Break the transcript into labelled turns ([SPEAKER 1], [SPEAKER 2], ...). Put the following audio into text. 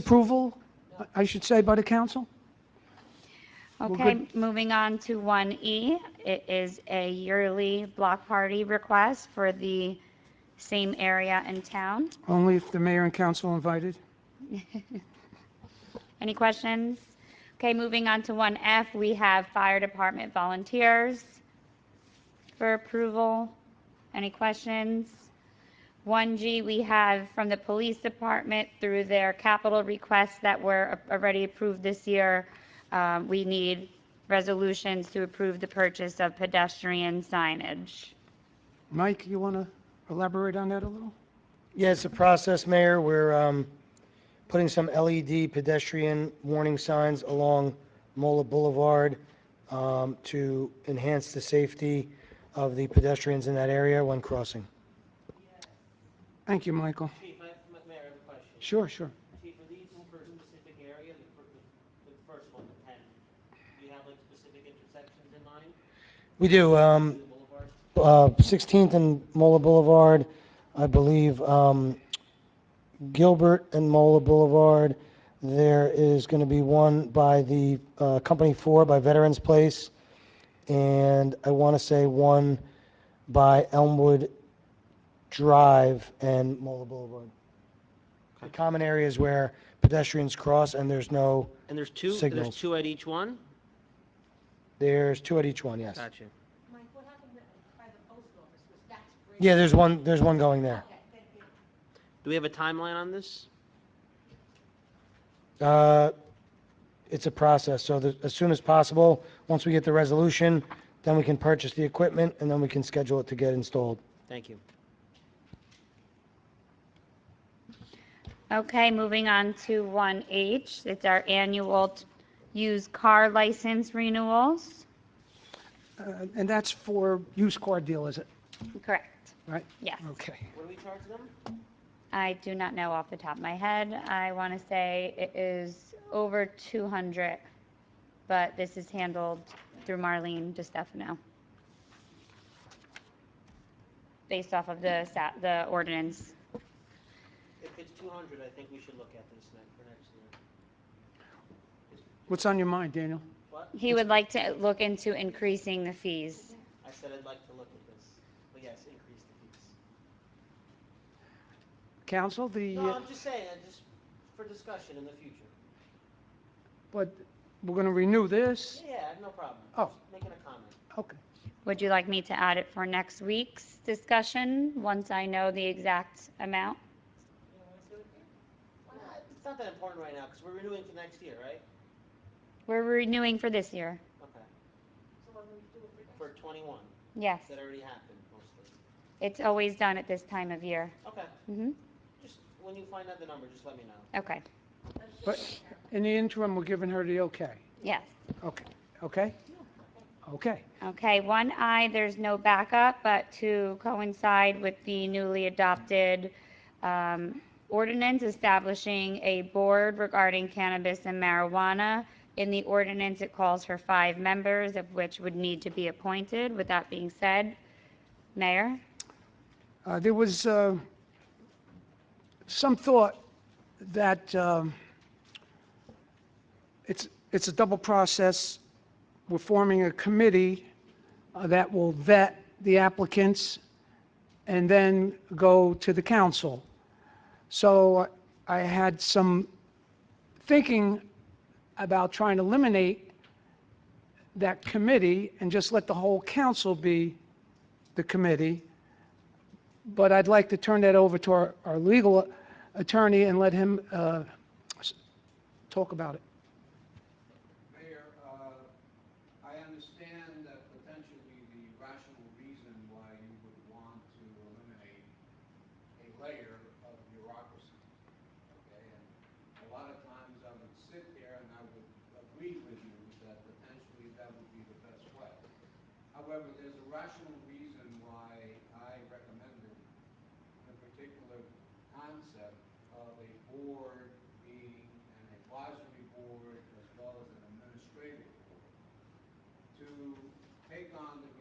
[SPEAKER 1] disapproval, I should say, by the council?
[SPEAKER 2] Okay, moving on to 1E. It is a yearly block party request for the same area in town.
[SPEAKER 1] Only if the mayor and council invited?
[SPEAKER 2] Any questions? Okay, moving on to 1F, we have fire department volunteers for approval. Any questions? 1G, we have from the police department through their capital requests that were already approved this year. um, We need resolutions to approve the purchase of pedestrian signage.
[SPEAKER 1] Mike, you want to elaborate on that a little?
[SPEAKER 3] Yeah, it's a process, Mayor. We're um, putting some LED pedestrian warning signs along Mola Boulevard um, to enhance the safety of the pedestrians in that area when crossing.
[SPEAKER 1] Thank you, Michael.
[SPEAKER 4] Chief, I, M- Mayor, I have a question.
[SPEAKER 1] Sure, sure.
[SPEAKER 4] Chief, are these in for a specific area, the, fir- the, the first one, the ten? Do you have like specific intersections in mind,
[SPEAKER 3] We do, um,
[SPEAKER 4] the boulevard?
[SPEAKER 3] uh, 16th and Mola Boulevard, I believe, um, Gilbert and Mola Boulevard. There is going to be one by the uh, Company 4 by Veterans Place, and I want to say one by Elmwood Drive and Mola Boulevard. The common areas where pedestrians cross, and there's no,
[SPEAKER 4] And there's two,
[SPEAKER 3] Signals.
[SPEAKER 4] there's two at each one?
[SPEAKER 3] there's two at each one, yes.
[SPEAKER 4] Gotcha.
[SPEAKER 5] Mike, what happened by the post office, was that's great.
[SPEAKER 3] Yeah, there's one, there's one going there.
[SPEAKER 5] Okay, thank you.
[SPEAKER 4] Do we have a timeline on this?
[SPEAKER 3] Uh, It's a process, so the- as soon as possible, once we get the resolution, then we can purchase the equipment, and then we can schedule it to get installed.
[SPEAKER 4] Thank you.
[SPEAKER 2] Okay, moving on to 1H. It's our annual t- used car license renewals.
[SPEAKER 1] Uh, And that's for used car dealers,
[SPEAKER 2] Correct.
[SPEAKER 1] right?
[SPEAKER 2] Yes.
[SPEAKER 1] Okay.
[SPEAKER 4] What do we charge them?
[SPEAKER 2] I do not know off the top of my head. I want to say it is over 200, but this is handled through Marlene DiStefano. Based off of the, sa- the ordinance.
[SPEAKER 4] If it's two hundred, I think we should look at this next, for next year.
[SPEAKER 1] What's on your mind, Daniel?
[SPEAKER 4] What?
[SPEAKER 2] He would like to look into increasing the fees.
[SPEAKER 4] I said I'd like to look at this, but yes, increase the fees.
[SPEAKER 1] Council, the,
[SPEAKER 4] No,
[SPEAKER 1] uh,
[SPEAKER 4] I'm just saying, I just, for discussion in the future.
[SPEAKER 1] but we're going to renew this?
[SPEAKER 4] Yeah, I have no problem.
[SPEAKER 1] Oh.
[SPEAKER 4] Just Making a comment.
[SPEAKER 1] Okay.
[SPEAKER 2] Would you like me to add it for next week's discussion, once I know the exact amount?
[SPEAKER 4] Well, It's not that important right now, because we're renewing for next year, right?
[SPEAKER 2] We're renewing for this year.
[SPEAKER 4] Okay. For twenty-one,
[SPEAKER 2] Yes,
[SPEAKER 4] that already happened mostly.
[SPEAKER 2] it's always done at this time of year.
[SPEAKER 4] Okay,
[SPEAKER 2] hmm
[SPEAKER 4] just, when you find out the number, just let me know.
[SPEAKER 2] okay,
[SPEAKER 1] But in the interim, we're giving her the okay.
[SPEAKER 2] yes.
[SPEAKER 1] Okay, okay? Okay.
[SPEAKER 2] Okay, one I, there's no backup, but to coincide with the newly adopted um, ordinance establishing a board regarding cannabis and marijuana. In the ordinance, it calls for five members, of which would need to be appointed. With that being said, Mayor?
[SPEAKER 1] Uh, There was uh, some thought that um, it's, it's a double process. We're forming a committee uh, that will vet the applicants and then go to the council. So uh, I had some thinking about trying to eliminate that committee and just let the whole council be the committee but I'd like to turn that over to our, our legal attorney and let him uh, s- talk about it.
[SPEAKER 6] Mayor, uh, I understand that potentially the rational reason why you would want to eliminate a layer of bureaucracy, okay? And a lot of times I would sit there and I would agree with you that potentially that would be the best way. However, there's a rational reason why I recommended the particular concept of a board being an advisory board as well as an administrative board to take on the